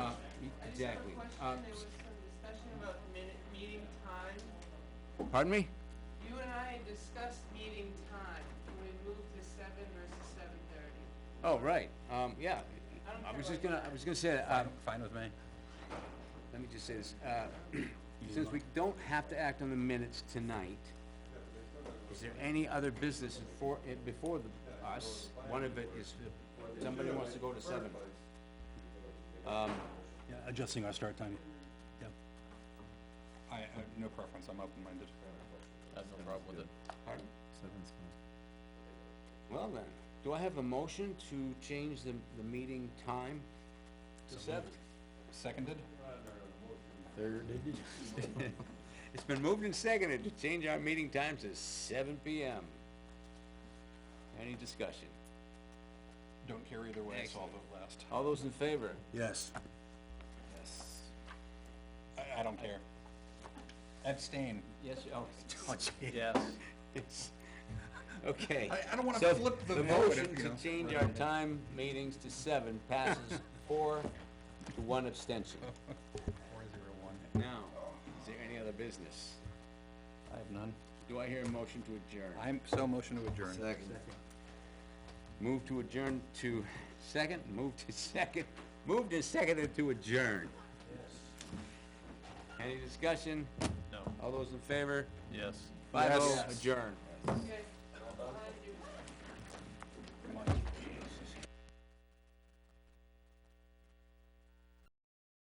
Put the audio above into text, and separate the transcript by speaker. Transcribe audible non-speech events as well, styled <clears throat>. Speaker 1: Uh, Exactly.
Speaker 2: I just
Speaker 1: Uh,
Speaker 2: have a question, there was some discussion about minute, meeting time.
Speaker 1: Pardon me?
Speaker 2: You and I had discussed meeting time, can we move to seven versus seven thirty?
Speaker 1: Oh, right, um, yeah.
Speaker 2: I don't
Speaker 1: I
Speaker 2: care
Speaker 1: was just
Speaker 2: about
Speaker 1: gonna,
Speaker 2: that.
Speaker 1: I was gonna say, um,
Speaker 3: Fine with me.
Speaker 1: let me just say this, uh, <clears throat> since we don't have to act on the minutes tonight, is there any other business for, eh, before the, us? One of it is, if somebody wants to go to seven. Um,
Speaker 4: Yeah, adjusting our start time. Yep.
Speaker 3: I, I, no preference, I'm open-minded.
Speaker 5: I have no problem with it.
Speaker 1: pardon? Well then, do I have a motion to change the, the meeting time to seven?
Speaker 3: Seconded?
Speaker 1: It's been moved and seconded to change our meeting time to seven PM. Any discussion?
Speaker 3: Don't care either way, so I'll
Speaker 1: Excellent.
Speaker 3: vote last.
Speaker 1: All those in favor?
Speaker 4: Yes.
Speaker 3: Yes. I, I don't care. Abstain.
Speaker 1: Yes, oh, <laughs>
Speaker 3: Oh, gee.
Speaker 5: Yes.
Speaker 1: yes. Okay.
Speaker 3: I- I don't wanna
Speaker 1: So,
Speaker 3: flip the vote,
Speaker 1: motion
Speaker 3: you
Speaker 1: to
Speaker 3: know.
Speaker 1: change our time meetings to seven
Speaker 3: <laughs>
Speaker 1: passes four to one abstention.
Speaker 3: Four zero one.
Speaker 1: Now, is there any other business?
Speaker 3: I have none.
Speaker 1: Do I hear a motion to adjourn?
Speaker 3: I'm so motion to adjourn.
Speaker 1: Second. Move to adjourn to second, move to <laughs> second, move to second to adjourn. Any discussion?
Speaker 5: No.
Speaker 1: All those in favor?
Speaker 5: Yes.
Speaker 1: Five oh,
Speaker 3: Yes.
Speaker 1: adjourn.
Speaker 2: You guys, behind you.